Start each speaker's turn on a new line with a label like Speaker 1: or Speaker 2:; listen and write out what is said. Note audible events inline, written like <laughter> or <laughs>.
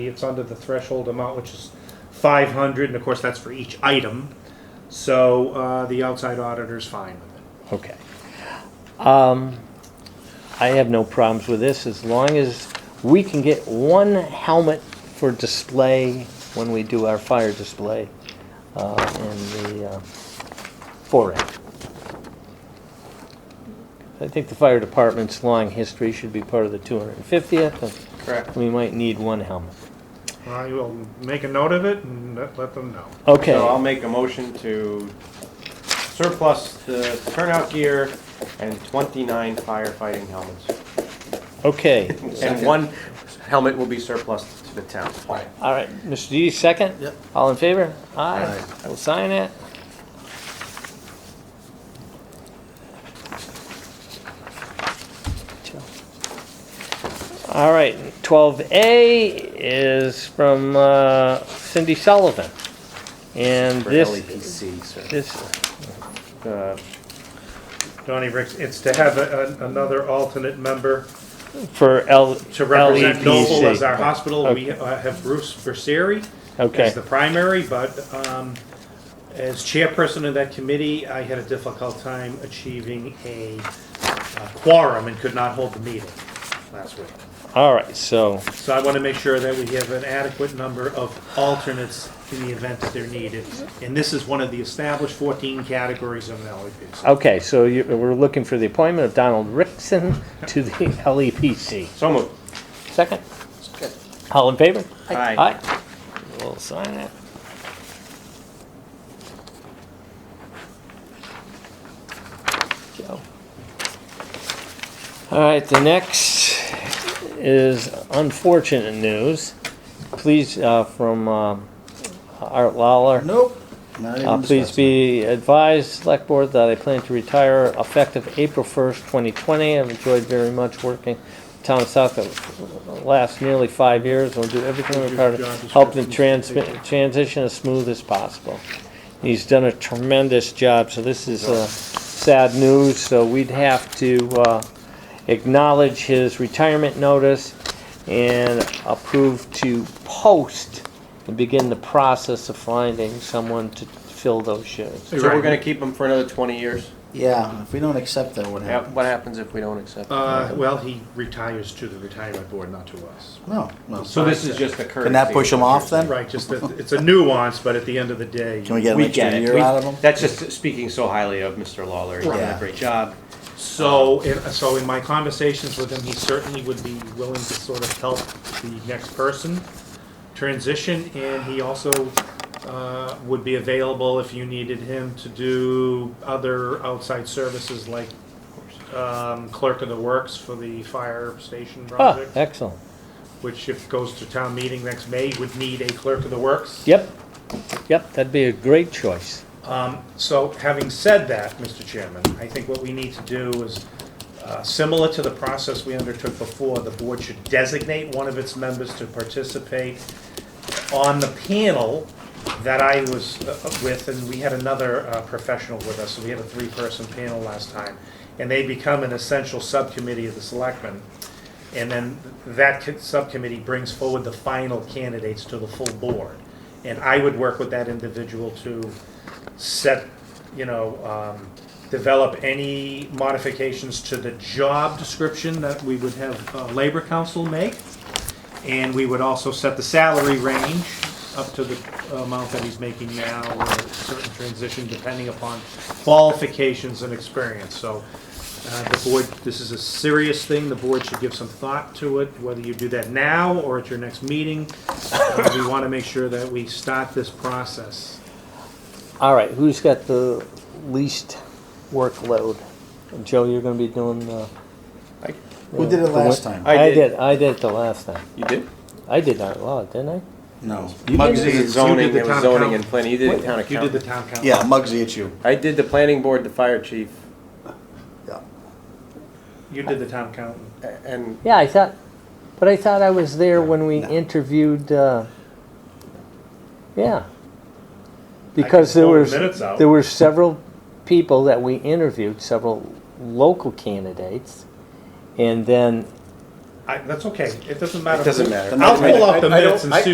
Speaker 1: It's under the threshold amount, which is five hundred, and of course, that's for each item. So, uh, the outside auditor's fine with it.
Speaker 2: Okay. Um, I have no problems with this as long as we can get one helmet for display when we do our fire display uh, in the uh, foray. I think the fire department's long history should be part of the 250th. and
Speaker 3: Correct.
Speaker 2: We might need one helmet.
Speaker 1: I will make a note of it and let, let them know.
Speaker 2: Okay.
Speaker 3: So I'll make a motion to surplus the turnout gear and twenty-nine firefighting helmets.
Speaker 2: Okay.
Speaker 3: And one helmet will be surplus to the town.
Speaker 2: All right, Mr. D, second?
Speaker 4: Yep.
Speaker 2: All in favor? Aye.
Speaker 4: Aye.
Speaker 2: I will sign it. All right, 12A is from uh, Cindy Sullivan. And
Speaker 3: For E
Speaker 2: this,
Speaker 3: LEPC, sir.
Speaker 2: this,
Speaker 3: Uh,
Speaker 1: Donnie Ricks, it's to have a, a- another alternate member
Speaker 2: for L, E
Speaker 1: to represent Noble as
Speaker 2: LEPC.
Speaker 1: our hospital. We uh, have Bruce Berseri
Speaker 2: Okay,
Speaker 1: as the primary, but, um, as chairperson of that committee, I had a difficult time achieving a uh, quorum and could not hold the meeting last week.
Speaker 2: all right, so,
Speaker 1: So I want to make sure that we have an adequate number of alternates in the event that they're needed. And this is one of the established 14 categories of an LEPC.
Speaker 2: okay, so you, we're looking for the appointment of Donald Rickson to the <laughs> E LEPC.
Speaker 3: So moved.
Speaker 2: Second? All in favor?
Speaker 3: Aye.
Speaker 2: Aye. We'll sign it. Joe. All right, the next is unfortunate news. Please, uh, from um, Art Lawler.
Speaker 4: Nope. Not even
Speaker 2: Uh, Please
Speaker 4: discussing.
Speaker 2: be advised, Select Board, that I plan to retire effective April 1st, 2020. I've enjoyed very much working with Town of South the last nearly five years. We'll do everything in our power to help them transmi- transition as smooth as possible. He's done a tremendous job, so this is uh, sad news, so we'd have to uh, acknowledge his retirement notice and approve to post and begin the process of finding someone to fill those shoes.
Speaker 3: So we're gonna keep them for another twenty years?
Speaker 4: Yeah, if we don't accept that, what
Speaker 3: Yeah,
Speaker 4: happens?
Speaker 3: What happens if we don't accept? it?
Speaker 1: Uh, Well, he retires to the retirement board, not to us.
Speaker 4: No, no.
Speaker 3: So this is just a courtesy.
Speaker 4: Can that push them off then?
Speaker 1: Right, just that, it's a nuance, but at the end of the day.
Speaker 4: Can we get an
Speaker 3: We get
Speaker 4: extra
Speaker 3: it.
Speaker 4: year
Speaker 3: We-
Speaker 4: out of them?
Speaker 3: That's just speaking so highly of Mr. Lawler. He's done a
Speaker 4: Right.
Speaker 3: great job.
Speaker 1: So, in- so in my conversations with him, he certainly would be willing to sort of help the next person transition, and he also uh, would be available if you needed him to do other outside services like um, clerk of the works for the fire station
Speaker 2: Ah,
Speaker 1: project,
Speaker 2: excellent.
Speaker 1: which if goes to town meeting next May, would need a clerk of the works.
Speaker 2: Yep, yep, that'd be a great choice.
Speaker 1: Um, So having said that, Mr. Chairman, I think what we need to do is, uh, similar to the process we undertook before, the board should designate one of its members to participate on the panel that I was uh, with, and we had another uh, professional with us, so we had a three-person panel last time, and they become an essential subcommittee of the selectmen. And then that co- subcommittee brings forward the final candidates to the full board. And I would work with that individual to set, you know, um, develop any modifications to the job description that we would have uh, Labor Council make. And we would also set the salary range up to the amount that he's making now, or a certain transition depending upon qualifications and experience. So uh, the board, this is a serious thing, the board should give some thought to it, whether you do that now or at your next meeting. Uh, We want to make sure that we start this process.
Speaker 2: All right, who's got the least workload? Joe, you're gonna be doing the.
Speaker 3: I-
Speaker 4: Who did it last time?
Speaker 3: I
Speaker 2: I
Speaker 3: did.
Speaker 2: did, I did it the last time.
Speaker 3: You did?
Speaker 2: I did art law, didn't I?
Speaker 4: No.
Speaker 1: did
Speaker 3: Muggsy
Speaker 1: the-
Speaker 3: did
Speaker 1: you
Speaker 3: zoning,
Speaker 1: did the
Speaker 3: it was
Speaker 1: town
Speaker 3: zoning
Speaker 1: council.
Speaker 3: and planning. You did the town
Speaker 1: You did the
Speaker 3: accountant.
Speaker 1: town council.
Speaker 4: Yeah, Muggsy, it's you.
Speaker 3: I did the planning board, the fire chief,
Speaker 4: Yeah.
Speaker 1: You did the town accountant.
Speaker 3: a- and
Speaker 2: Yeah, I thought, but I thought I was there when we interviewed, uh, yeah. Because there
Speaker 1: pull the
Speaker 2: was,
Speaker 1: minutes out.
Speaker 2: there were several people that we interviewed, several local candidates. And then
Speaker 1: I, that's okay, it doesn't matter.
Speaker 3: It doesn't matter.
Speaker 1: I'll pull out the
Speaker 4: I- I don't-
Speaker 1: minutes and
Speaker 4: I-
Speaker 1: see